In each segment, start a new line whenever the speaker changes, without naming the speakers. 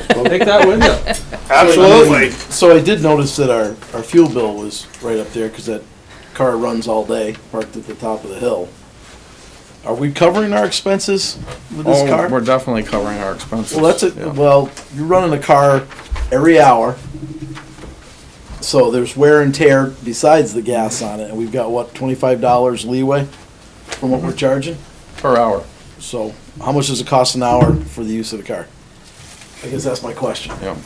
Take that window.
Absolutely.
So I did notice that our, our fuel bill was right up there, cause that car runs all day, parked at the top of the hill. Are we covering our expenses with this
Oh,
car?
we're definitely covering our expenses.
Well, that's
yeah.
it, well, you're running a car every hour. So there's wear and tear besides the gas on it, and we've got what, twenty-five dollars leeway from what we're charging?
Mm-hmm. Per hour,
So how much does it cost an hour for the use of the car? I guess that's my question.
yeah.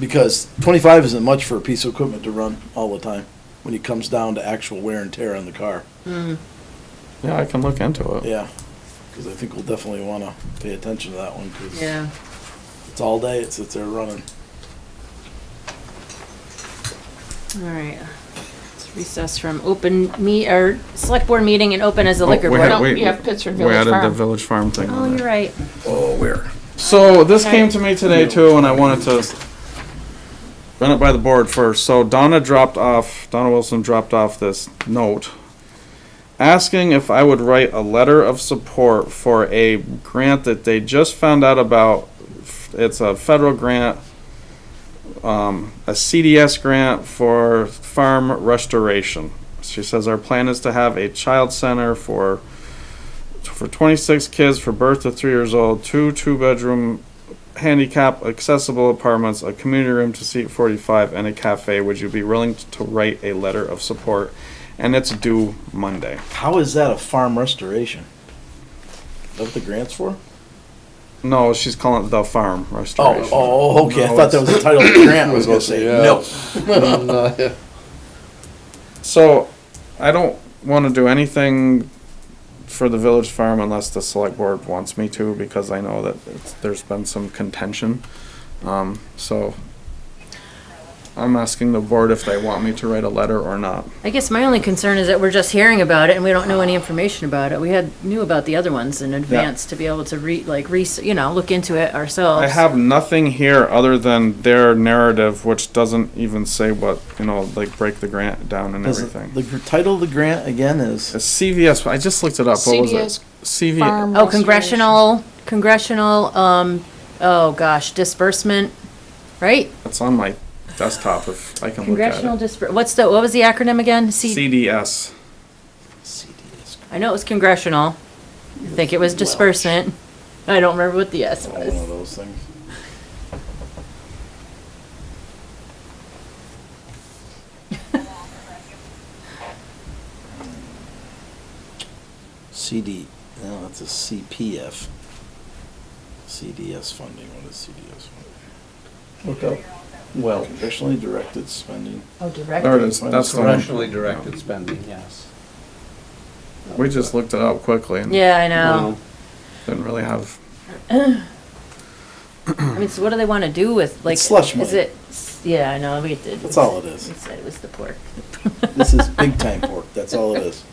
because 25 isn't much for a piece of equipment to run all the time when it comes down to actual wear and tear on the car.
Hmm,
Yeah, I can look into it.
Yeah, because I think we'll definitely want to pay attention to that one because
Yeah.
it's all day, it sits there running.
All right. Let's recess from open meet, or select board meeting and open as a
Oh,
liquor
we
board.
had-
Oh,
wait,
you have Pittsford
We
Village
added the
Farm.
village farm thing
Oh,
on
you're
there.
right.
So this
Okay.
came to me today too, and I wanted to run it by the board first. So Donna dropped off, Donna Wilson dropped off this note asking if I would write a letter of support for a grant that they just found out about. It's a federal grant, um, a CDS grant for farm restoration. She says our plan is to have a child center for for 26 kids for birth to three years old, two two bedroom handicap accessible apartments, a community room to seat 45, and a cafe. Would you be willing t- to write a letter of support? And it's due Monday.
How is that a farm restoration? Is that what the grant's for?
No, she's calling it the farm
Oh,
restoration.
oh, okay.
No,
I thought that was the title of the grant. I was going to say, no.
no.
So I don't want to do anything for the village farm unless the select board wants me to because I know that it's, there's been some contention. Um, so I'm asking the board if they want me to write a letter or not.
I guess my only concern is that we're just hearing about it and we don't know any information about it. We had, knew about the other ones in advance to be able to re, like, re, you know, look into it ourselves.
I have nothing here other than their narrative, which doesn't even say what, you know, like break the grant down and
Does it-
everything. Uh,
the gr- title of the grant again is
The CVS, I just looked it up. What was
CVS
it? CV,
Farm
Oh,
restoration.
congressional, congressional, um, oh gosh, disbursement, right?
it's on my desktop if I can look at
Congressional
it.
disbur, what's the, what was the acronym again? C,
CDS.
CDS.
I know it was congressional. I think it was disbursement. I don't remember what the S
One of
was.
those things. CD, no, that's a CPF. CDS funding, what is CDS funding? Look up. Well. Congressionally directed spending.
Oh, direct.
There it is. That's the one.
Congressionally directed spending, yes.
We just looked it up quickly and
Yeah, I know.
Well,
didn't really have,
I mean, so what do they wanna do with, like?
slush money.
Is it, yeah, I know, we did.
That's all it is.
We said it was the pork.
This is big time pork, that's all it is.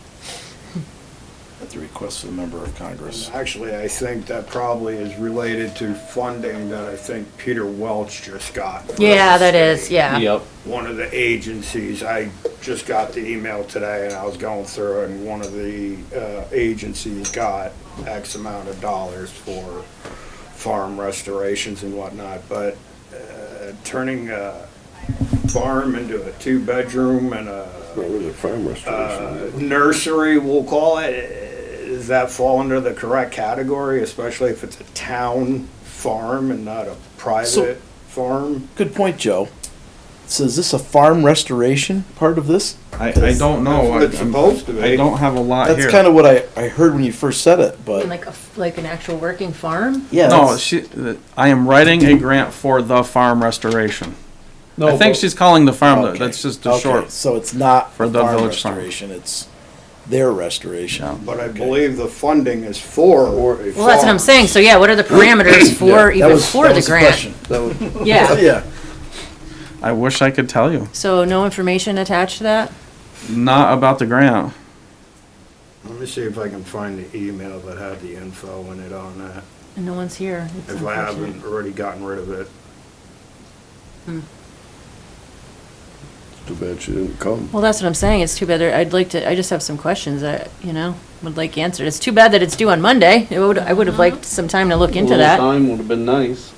At the request of a member of Congress.
Actually, I think that probably is related to funding that I think Peter Welch just got. from
Yeah,
the
that is,
state.
yeah.
Yep.
One of the agencies, I just got the email today and I was going through it, and one of the uh, agencies got X amount of dollars for farm restorations and whatnot, but uh, turning a farm into a two-bedroom and a
Well, it was a farm
Uh,
restoration.
nursery, we'll call it, does that fall under the correct category, especially if it's a town farm and not a
So-
private farm?
Good point, Joe. So is this a farm restoration part of this?
I, I don't
Oh,
know. I-
It's supposed to
I
be.
don't have a lot
That's
here.
kind of what I, I heard when you first said it, but
Like a, f- like an actual working farm?
yeah.
No,
that's-
she, uh, I am writing a grant for the farm restoration.
No,
I think
but-
she's calling the farm,
okay.
that's just a
Okay,
short.
So it's not
For the
farm
village farm.
restoration, it's their restoration.
But I believe the funding is for a
Well, that's what I'm
farm.
saying, so yeah, what are the parameters for,
That
even
was-
for
that
the
was
grant?
question.
That would-
Yeah,
Yeah,
I wish I could tell you.
so no information attached to that?
Not about the grant.
Let me see if I can find the email that had the info in it on that,
And no one's here. It's
if I
unfortunate.
haven't already gotten rid of it.
Too bad she didn't come.
Well, that's what I'm saying, it's too bad, there- I'd like to, I just have some questions that, you know, would like answered. It's too bad that it's due on Monday, it would, I would have liked some time to look
a
into
little
that.
Time would have been nice.